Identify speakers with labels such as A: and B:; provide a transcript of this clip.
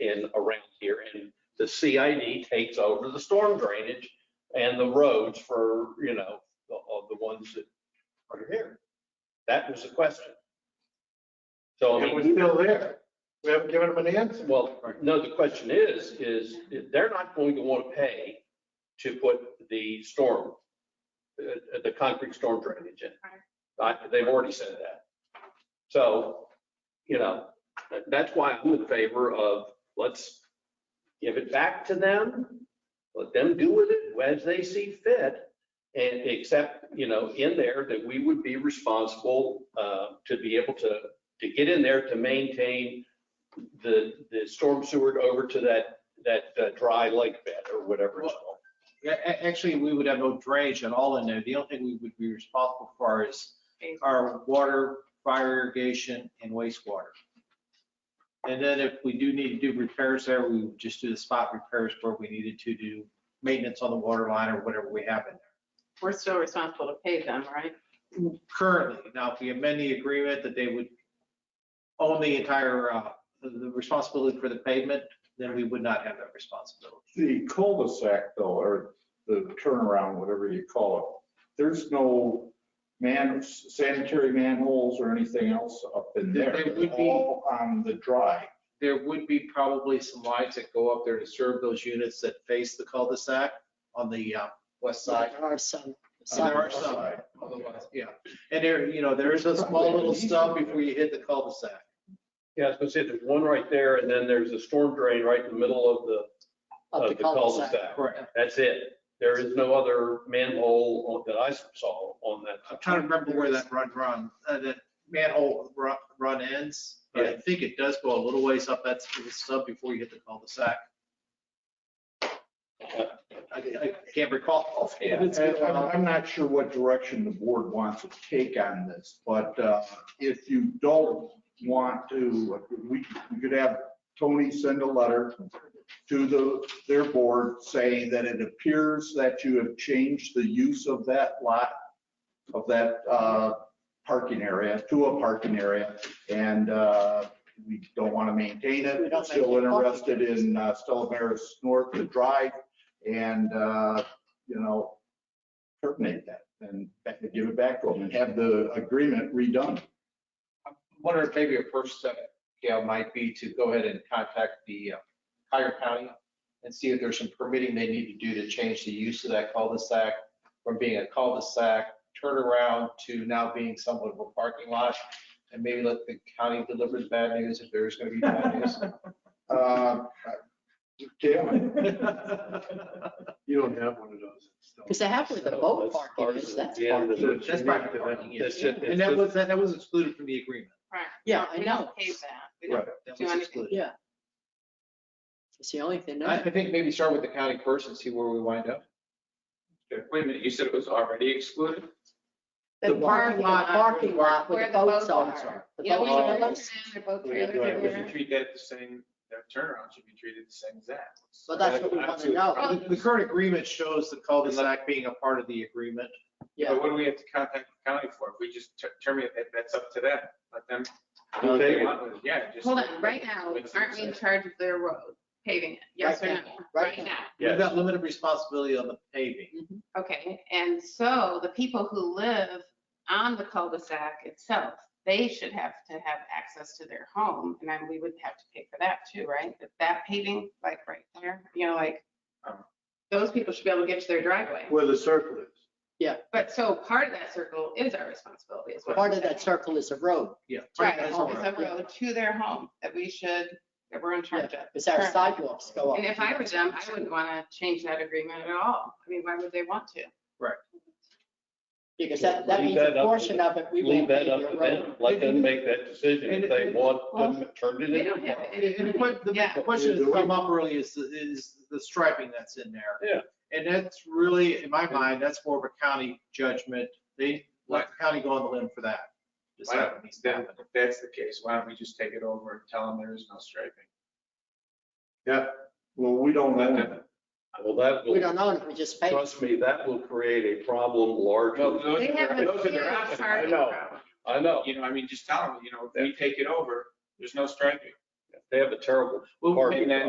A: in around here. And the CID takes over the storm drainage and the roads for, you know, the- of the ones that are here. That was the question. So I
B: It was
A: mean,
B: still there. We haven't given them an answer.
A: well, no, the question is, is they're not going to want to pay to put the storm, uh, the concrete storm drainage in. I- They've already said that. So, you know, that- that's why I'm in favor of, let's give it back to them, let them do with it as they see fit. And except, you know, in there that we would be responsible uh, to be able to, to get in there to maintain the, the storm sewer over to that, that uh, dry lake bed or whatever it's called.
C: Yeah, a- actually, we would have no drainage at all in there. The only thing we would be responsible for is our water, fire irrigation, and wastewater. And then if we do need to do repairs there, we would just do the spot repairs where we needed to do maintenance on the water line or whatever we have in there.
D: We're still responsible to pay them, right?
C: Currently, now if we amend the agreement that they would own the entire, uh, the- the responsibility for the pavement, then we would not have that responsibility.
E: The cul-de-sac though, or the turnaround, whatever you call it, there's no man, sanitary manholes or anything else up in there.
C: There would
E: They're
C: be-
E: all On the dry.
C: there would be probably some lines that go up there to serve those units that face the cul-de-sac on the uh, west side.
F: There are some.
C: So there are
E: On the
C: some.
E: side.
C: Otherwise, yeah. And there, you know, there is a small little stub before you hit the cul-de-sac.
A: Yeah, I was gonna say, there's one right there and then there's a storm drain right in the middle of the, of the cul-de-sac.
C: Correct.
A: That's it. There is no other manhole on- that I saw on that.
C: I'm trying to remember where that run, run, uh, that manhole ru- run ends. But I think it does go a little ways up that little stub before you hit the cul-de-sac. I I can't recall offhand. uh, It's been
E: And
C: a
E: I'm,
C: while.
E: I'm not sure what direction the board wants to take on this, but uh, if you don't want to, we, we could have Tony send a letter to the, their board saying that it appears that you have changed the use of that lot, of that uh, parking area, to a parking area, and uh, we don't want to maintain it.
F: We
E: We're
F: don't
E: still
F: maintain parking.
E: interested in uh, Stella Maris North, the drive, and, uh, you know, terminate that and back- give it back to them and have the agreement redone.
C: I'm wondering if maybe a first step, Gail, might be to go ahead and contact the uh, Cuyahoga County and see if there's some permitting they need to do to change the use of that cul-de-sac from being a cul-de-sac turnaround to now being somewhat of a parking lot. And maybe let the county deliver the bad news if there's going to be bad news.
E: Uh, Jalen,
B: You don't have one of those. It's still-
F: Because they have where the boat parking is, that's
A: Yeah,
F: parking.
A: that's-
C: That's private parking, yeah.
A: That's just-
C: And that was, that was excluded from the agreement.
D: Right.
F: Yeah, I
D: We don't
F: know.
D: pay that. We don't-
C: That
D: Do
C: was
D: anything.
C: excluded.
F: Yeah. It's the only thing,
C: I,
F: no,
C: I think maybe start with the county first and see where we wind up.
G: Wait a minute, you said it was already excluded?
F: the parking lot, parking lot where the boats are. The
D: Yeah, we
F: boats
D: don't
F: are.
D: look in, they're both trailers
B: do
G: We
D: everywhere.
G: should treat that the same, that turnaround should be treated the same as that.
F: Well, that's what we want to know.
C: The the current agreement shows the cul-de-sac being a part of the agreement.
F: Yeah.
G: But what do we have to contact the county for? If we just ter- terminate, that, that's up to them. Let them. do what they want with it. Yeah, just.
D: Hold on, right now, aren't we in charge of their road, paving it? Yes or
F: Right
D: no?
F: now, right
D: Right now.
C: We've
A: Yes.
C: got limited responsibility on the paving.
F: Mm-hmm.
D: Okay, and so the people who live on the cul-de-sac itself, they should have to have access to their home. And then we would have to pay for that too, right? But That paving, like right there, you know, like,
G: Um.
D: those people should be able to get to their driveway.
B: Where the circle is.
D: But so part of that circle is our responsibility as well.
F: Part of that circle is a road.
C: Yeah.
D: Right,
F: Right,
D: it's
F: home.
D: a road to their home that we should, that we're in charge of.
F: Because our sidewalks go up.
D: And if I were them, I wouldn't want to change that agreement at all. I mean, why would they want to?
F: Because that, that
A: Leave
F: means
A: that
F: a
A: up to
F: portion of it, we
A: Leave
F: won't pay
A: that
F: the
A: up to
F: road.
A: them. Let them make that decision. If they want
D: Well,
A: to turn it
D: They
A: in.
D: don't have
C: And- and
D: any.
C: what- the big
D: Yeah.
C: question that's come up really is, is the striping that's in there.
A: Yeah.
C: And that's really, in my mind, that's more of a county judgment. They let the county go on the limb for that. Decide what needs to
G: Then,
C: happen.
G: if that's the case, why don't we just take it over and tell them there is no striping?
E: well, we don't
G: Let
E: own
G: them.
E: it.
A: Well, that
F: We
A: will,
F: don't own it, we just pay.
A: trust me, that will create a problem
G: Well,
A: larger.
G: those
D: They
G: are
D: have
G: their-
D: a
G: those are
D: huge
G: their options. I
D: parking
G: know.
D: problem.
A: I know.
G: You know, I mean, just tell them, you know, we take it over, there's no striping.
A: They have a terrible
C: Well,
A: parking
G: And then